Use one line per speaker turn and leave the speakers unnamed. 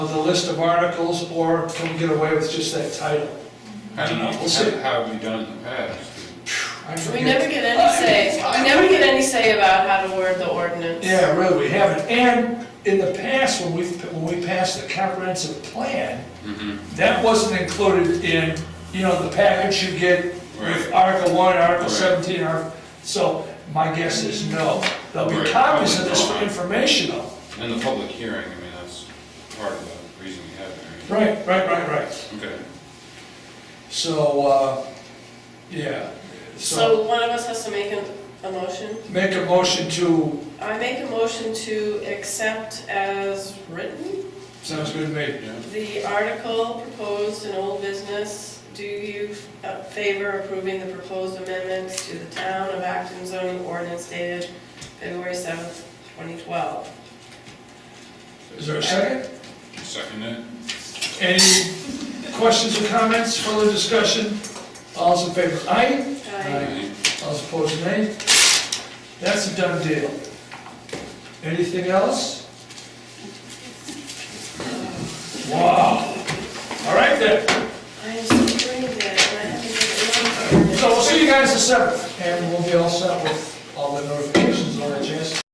of the list of articles, or can we get away with just that title?
I don't know,
We'll see.
how have we done in the past?
I
We
forget.
never get any say, we never get any say about how to word the ordinance.
Yeah, really, we haven't. And in the past, when we, when we passed the comprehensive plan,
Mm-hmm.
that wasn't included in, you know, the package you get with
Right.
Article one, Article
Right.
seventeen, Article, so my guess is no. There'll be
Right.
copies of this for
Right.
informational.
And the public hearing, I mean, that's part of the reason we have it,
Right, right, right, right.
right? Okay.
So, uh, yeah, so
So one of us has to make a, a motion.
make a motion to,
I make a motion to accept as written
sounds good to me.
the article proposed in old business. Do you uh, favor approving the proposed amendments to the town of Acton zoning ordinance dated February seventh, twenty twelve?
Is there a second?
Second it?
Any questions or comments, further discussion? All's in favor, aye? All's opposed, nay? That's a done deal. Anything else? Wow. All right then,
I am so drained and I haven't made it.
so we'll see you guys the seventh, and we'll be all set with all the notifications on the chance.